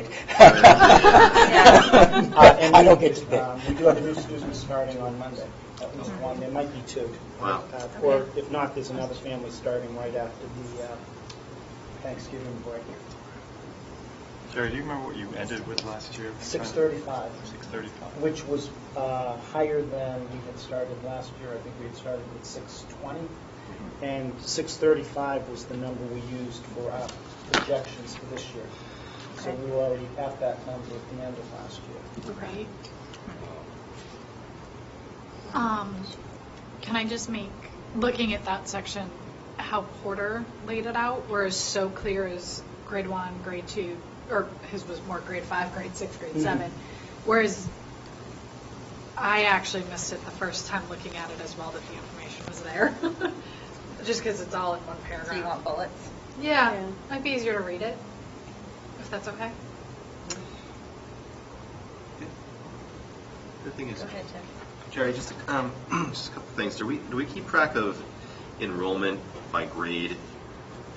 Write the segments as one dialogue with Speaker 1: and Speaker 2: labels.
Speaker 1: Uh, and
Speaker 2: I
Speaker 1: we-
Speaker 2: don't get to pick.
Speaker 1: um, We do have a new student starting on Monday, at least one, there might be two.
Speaker 3: Wow.
Speaker 1: Uh, Or if not, there's another family starting right after the uh, Thanksgiving break,
Speaker 3: Jerry, do you remember what you ended with last year?
Speaker 1: 6:35,
Speaker 3: Six thirty-five.
Speaker 1: which was uh, higher than we had started last year. I think we had started with 620. And 635 was the number we used for our projections for this year. So
Speaker 4: Okay.
Speaker 1: we were already at that number at the end of last year.
Speaker 4: Right. Um, can I just make, looking at that section, how Porter laid it out, where it's so clear as grade one, grade two, or his was more grade five, grade six, grade
Speaker 1: Mhm.
Speaker 4: seven, whereas I actually missed it the first time looking at it as well, that the information was there, just because it's all in one
Speaker 5: So you want
Speaker 4: paragraph.
Speaker 5: bullets?
Speaker 4: Yeah, might be easier to read it, if that's okay.
Speaker 3: The thing is,
Speaker 5: Go ahead, Jeff.
Speaker 3: Jerry, just, um, just a couple things. Do we, do we keep track of enrollment by grade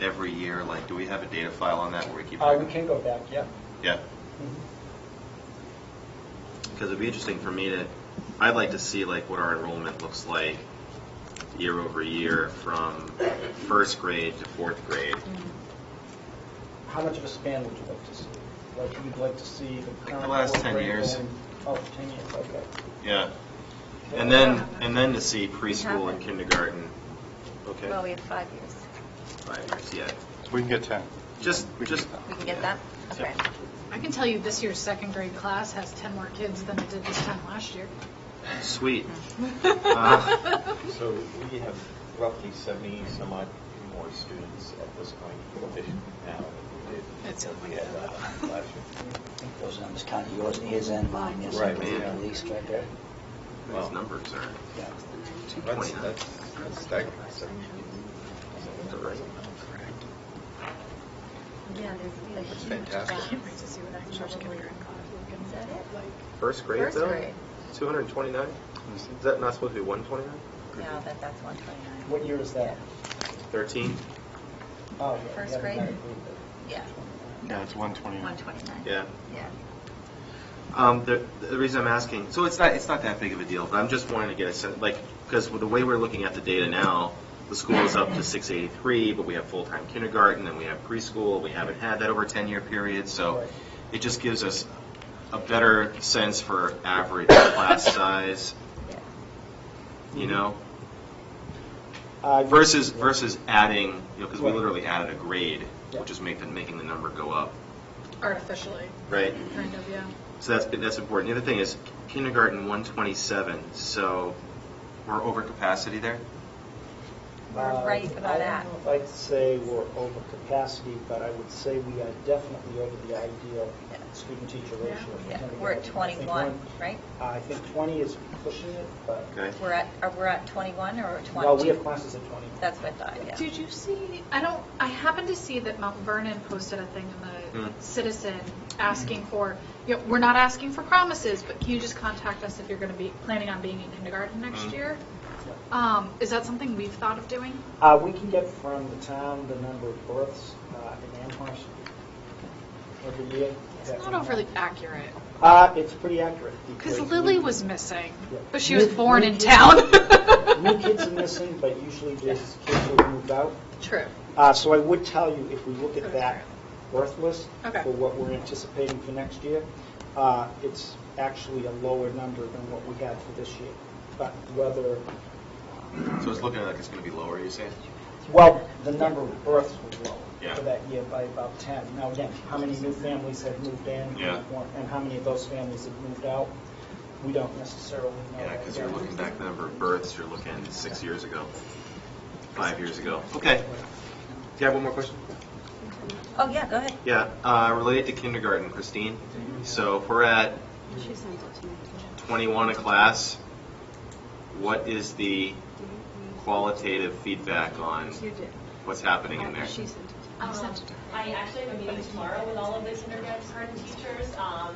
Speaker 3: every year? Like, do we have a data file on that where we keep?
Speaker 1: Uh,
Speaker 3: track
Speaker 1: We
Speaker 3: of-
Speaker 1: can go back, yeah.
Speaker 3: Yeah,
Speaker 1: Mm-hmm.
Speaker 3: because it'd be interesting for me to, I'd like to see like what our enrollment looks like year over year from first grade to fourth grade.
Speaker 5: Mm-hmm.
Speaker 1: How much of a span would you like to see? Like, you'd like to see the
Speaker 3: the
Speaker 1: current...
Speaker 3: last
Speaker 1: fourth
Speaker 3: 10
Speaker 1: grade
Speaker 3: years.
Speaker 1: going- Oh, 10 years, okay.
Speaker 3: Yeah. And then, and then to see preschool and kindergarten. Okay.
Speaker 5: Well, we have five years.
Speaker 3: Five years, yeah.
Speaker 6: We can get 10.
Speaker 3: Just,
Speaker 6: We can
Speaker 3: just.
Speaker 6: get
Speaker 5: We can get that? Okay.
Speaker 4: I can tell you this year's second grade class has 10 more kids than it did this time last year.
Speaker 3: Sweet.
Speaker 7: So we have roughly 70 some odd more students at this point this- now than we did.
Speaker 4: It's
Speaker 7: than we had uh, last year.
Speaker 2: I think those numbers kind of yours, his and mine, yes,
Speaker 7: Right,
Speaker 2: at
Speaker 3: yeah.
Speaker 2: least right there.
Speaker 3: These numbers are
Speaker 2: Yeah.
Speaker 3: two
Speaker 7: That's,
Speaker 3: twenty-nine.
Speaker 7: that's that's staggering. So
Speaker 5: Yeah, there's a
Speaker 7: That's
Speaker 5: huge
Speaker 7: fantastic.
Speaker 5: gap. Is that it?
Speaker 3: First grade
Speaker 5: First
Speaker 3: though?
Speaker 5: grade.
Speaker 3: Two hundred and twenty-nine? Is that not supposed to be one twenty-nine?
Speaker 5: No, that, that's 129.
Speaker 1: What year is that?
Speaker 3: Thirteen?
Speaker 1: Oh, yeah, we
Speaker 5: First
Speaker 1: haven't
Speaker 5: grade?
Speaker 1: got a group there.
Speaker 5: Yeah,
Speaker 6: Yeah, it's 129.
Speaker 5: 129.
Speaker 3: Yeah.
Speaker 5: Yeah.
Speaker 3: Um, the, the reason I'm asking, so it's not, it's not that big of a deal, but I'm just wanting to get a sense, like, because with the way we're looking at the data now, the school is up to six eighty-three, but we have full-time kindergarten, and we have preschool, we haven't had that over a ten-year period, so
Speaker 1: Right.
Speaker 3: it just gives us a better sense for average class size,
Speaker 5: Yeah.
Speaker 3: you know?
Speaker 1: Mm-hmm. Uh,
Speaker 3: Versus, versus adding, you know, because we
Speaker 1: Right.
Speaker 3: literally added a grade,
Speaker 1: Yeah.
Speaker 3: which is making, making the number go up,
Speaker 4: Artificially,
Speaker 3: right?
Speaker 4: kind of, yeah.
Speaker 3: So that's, that's important. The other thing is kindergarten 127, so we're over capacity there?
Speaker 5: We're right about
Speaker 1: Uh, I
Speaker 5: that.
Speaker 1: don't know if I'd say we're over capacity, but I would say we are definitely over the ideal
Speaker 5: Yeah.
Speaker 1: student-teacher ratio.
Speaker 5: Yeah, we're at 21, right?
Speaker 1: I think 20 is pushing it, but,
Speaker 3: Okay.
Speaker 5: We're at, are we at 21 or 20?
Speaker 1: well, we have classes at 20.
Speaker 5: That's what I thought, Uh, yeah.
Speaker 4: Did you see, I don't, I happened to see that Mount Vernon posted a thing in the
Speaker 3: Hmm.
Speaker 4: Citizen asking for, you know, we're not asking for promises, but can you just contact us if you're going to be planning on being in kindergarten next
Speaker 3: Mhm.
Speaker 4: year? Um, Is that something we've thought of doing?
Speaker 1: Uh, we can get from the town the number of births uh, in Amherst every year.
Speaker 4: It's not overly accurate,
Speaker 1: Uh, it's pretty accurate.
Speaker 4: because
Speaker 1: because
Speaker 4: Lily
Speaker 1: we-
Speaker 4: was missing,
Speaker 1: Yeah.
Speaker 4: but she was
Speaker 1: New-
Speaker 4: born
Speaker 1: new
Speaker 4: in
Speaker 1: kids-
Speaker 4: town.
Speaker 1: New kids are missing, but usually there's kids who have moved out.
Speaker 4: True.
Speaker 1: Uh, So I would tell you, if we look at that birth list
Speaker 4: Okay.
Speaker 1: for what we're anticipating for next year, uh, it's actually a lower number than what we had for this year. But whether,
Speaker 3: So it's looking like it's going to be lower, you're saying?
Speaker 1: well, the number of births was low
Speaker 3: Yeah.
Speaker 1: for that year by about 10. Now, again, how many new families have moved in?
Speaker 3: Yeah.
Speaker 1: And how many of those families have moved out? We don't necessarily know.
Speaker 3: Yeah,
Speaker 1: that
Speaker 3: because you're
Speaker 1: yet.
Speaker 3: looking back the number of births, you're looking six years ago, five years ago. Okay. Do you have one more question?
Speaker 5: Oh, yeah, go ahead.
Speaker 3: Yeah, uh, related to kindergarten, Christine. So if we're at 21 a class, what is the qualitative feedback on what's happening
Speaker 4: uh,
Speaker 3: Oh, in there?
Speaker 8: Um, I actually have a meeting tomorrow with all of the kindergarten teachers. Um,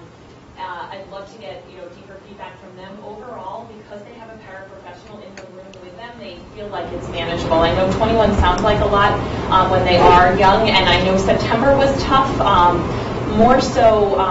Speaker 8: uh, I'd love to get, you know, deeper feedback from them overall, because they have a paraprofessional in the room with them, they feel like it's manageable. I know uh, 21 sounds like a lot, um, when they are young, and I know September was tough, um, more so